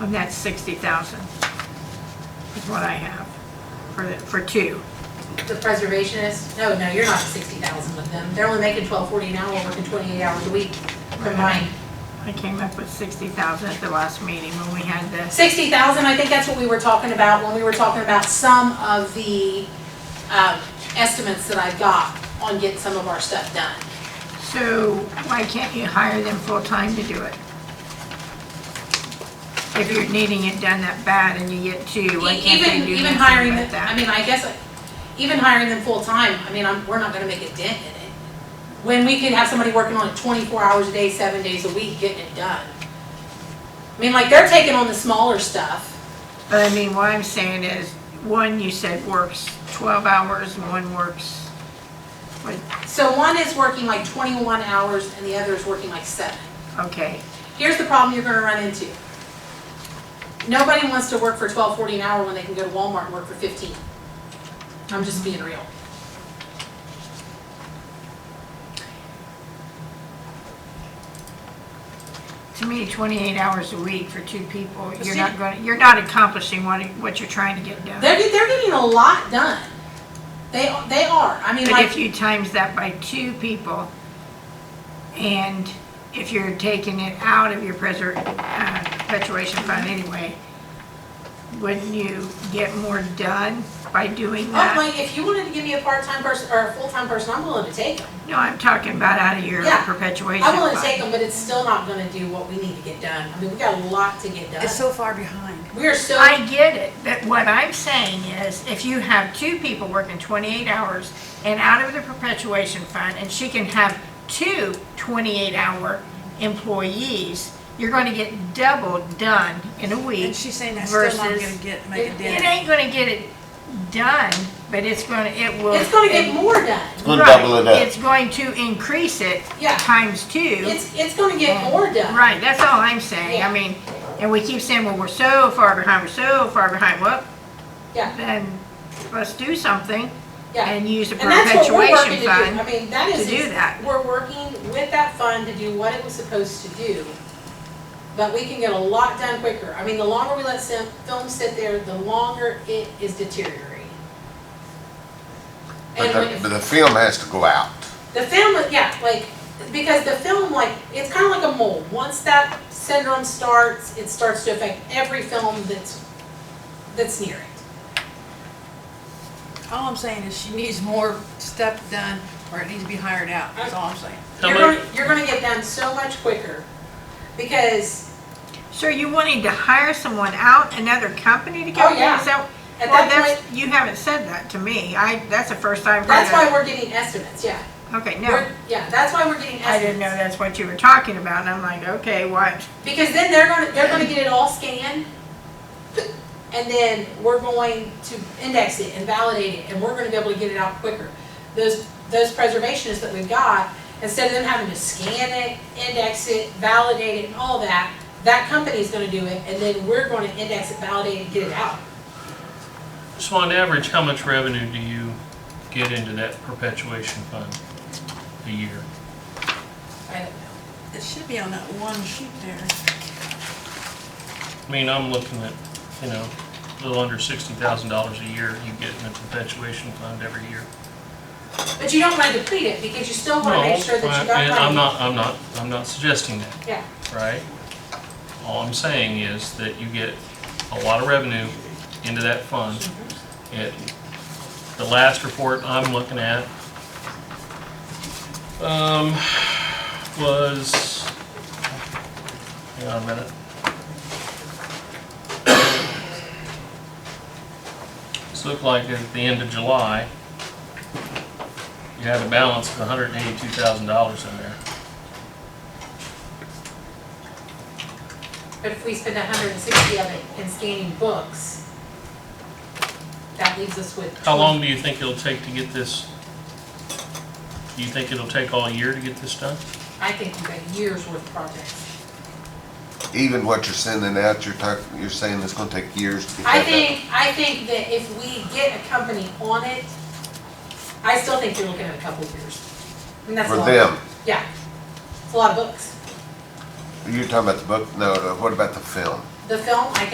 And that's 60,000 is what I have for, the- for two. The preservationists, no, no, you're not at sixty thousand with them. They're only making twelve forty an hour, working twenty-eight hours a week combined. I came up with 60,000 at the last meeting when we had this. Sixty thousand, I think that's what we were talking about when we were talking about some of the, um, estimates that I got on getting some of our stuff done. So why can't you hire them full-time to do it? If you're needing it done that bad and you get two, why E- can't they Even, do even nothing hiring, but them- I that? mean, I guess, uh, even hiring them full-time, I mean, I'm, we're not gonna make a dent in it. When we could have somebody working on it twenty-four hours a day, seven days a week, getting it done. I mean, like, they're taking on the smaller stuff. But I mean, what I'm saying is, one you said works 12 hours and one works, what, So one is working like twenty-one hours and the other is working like seven. okay. Here's the problem you're gonna run into. Nobody wants to work for twelve forty an hour when they can go to Walmart and work for fifteen. I'm just being real. To me, 28 hours a week for two people, you're see- not going, you're not accomplishing what, what you're trying to get done. They're, get- they're getting a lot done. They, they are. I mean, But if like, you times that by two people, and if you're taking it out of your preser, uh, perpetuation fund anyway, wouldn't you get more done by doing I'm that? oh, like, if you wanted to give me a part-time person or a full-time person, I'm willing to take them. No, I'm talking about out of your Yeah, perpetuation I'm willing to fund. take them, but it's still not gonna do what we need to get done. I mean, we got a lot to get It's done. so far behind. We are so, I get it, but what I'm saying is, if you have two people working twenty-eight hours and out of the perpetuation fund, and she can have two 28 hour employees, you're gonna get double done in a week. And she's saying that's still not versus- gonna get, make a It dent. ain't gonna get it done, but it's gonna, it will. it's gonna get more done. Gonna double it Right, up. It's going to increase it Yeah. times two. It's, it's gonna get more done. Right, that's all I'm saying. I Yeah. mean, and we keep saying, well, we're so far behind, we're so far behind. Well, Yeah. then let's do something Yeah. and use a And that's what we're perpetuation working to do. I fund. mean, that to is. do that. We're working with that fund to do what it was supposed to do. But we can get a lot done quicker. I mean, the longer we let sim- film sit there, the longer it is deteriorating. And But the, when, but the film has to go out. the film, yeah, like, because the film, like, it's kind of like a mold. Once that syndrome starts, it starts to affect every film that's, that's near it. All I'm saying is she needs more stuff done, or it needs to be hired out, that's all I'm saying. How You're many- gonna, you're gonna get done so much quicker because So you wanting to hire someone out, another company to Oh, come in? yeah. Is that- At Well, that that's, you haven't said that to me. I, that's the first time. I've heard That's of- why we're getting estimates, yeah. Okay, no, We're- Yeah, that's why we're getting I didn't know estimates. that's what you were talking about. And I'm like, okay, what? Because then they're gonna, they're gonna get it all scanned. And then we're going to index it and validate it, and we're gonna be able to get it out quicker. Those, those preservationists that we've got, instead of them having to scan it, index it, validate it, and all that, that company's gonna do it, and then we're gonna index it, validate it, and get it out. So on average, how much revenue do you get into that perpetuation fund a year? I don't know. It should be on that one sheet there. I mean, I'm looking at, you know, a little under sixty thousand dollars a year you get in the perpetuation fund every year. But you don't wanna deplete it, because you still No, wanna make sure that I- you got and money. I'm not, I'm not, I'm not suggesting that, Yeah, right? All I'm saying is that you get a lot of revenue into that fund. It, the last report I'm looking at, um, was, hang on a minute. This looked like at the end of July, you had a balance of hundred and eighty-two thousand dollars in there. but if we spend hundred and sixty of it in scanning books, that leaves us with. How long do you think it'll take to get this? Do you think it'll take all year to get this done? I think we've got years worth of projects. Even what you're sending out, you're talking, you're saying it's gonna take years to get that I done. think, I think that if we get a company on it, I still think you're looking at a couple of years. And that's a For lot. them, Yeah, it's a lot of books. you're talking about the book, no, no, what about the film? the film, I can